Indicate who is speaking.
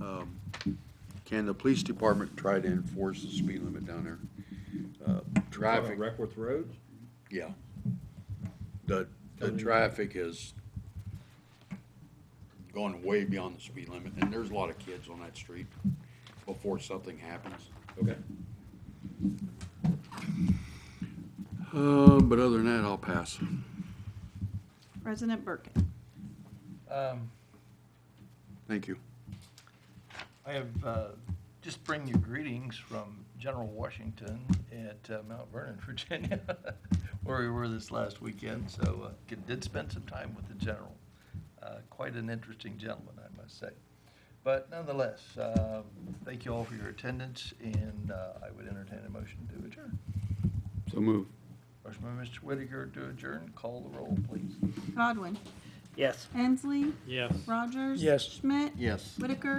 Speaker 1: um, can the police department try to enforce the speed limit down there? Uh, Traffic,
Speaker 2: Reckworth Road?
Speaker 1: yeah. The, the
Speaker 2: Tell me.
Speaker 1: traffic is going way beyond the speed limit, and there's a lot of kids on that street before something happens.
Speaker 2: Okay.
Speaker 1: Uh, but other than that, I'll pass.
Speaker 3: President Birkin.
Speaker 4: Um,
Speaker 1: Thank you.
Speaker 4: I have, uh, just bring you greetings from General Washington at uh, Mount Vernon, Virginia, where we were this last weekend, so uh, g- did spend some time with the general. Uh, Quite an interesting gentleman, I must say. But nonetheless, um, thank you all for your attendance, and uh, I would entertain a motion to adjourn.
Speaker 5: So move.
Speaker 4: Motion by Mr. Whitaker to adjourn, call the roll, please.
Speaker 3: Godwin.
Speaker 6: Yes.
Speaker 3: Hensley.
Speaker 6: Yes.
Speaker 3: Rogers.
Speaker 4: Yes.
Speaker 3: Schmidt.
Speaker 1: Yes.
Speaker 3: Whitaker.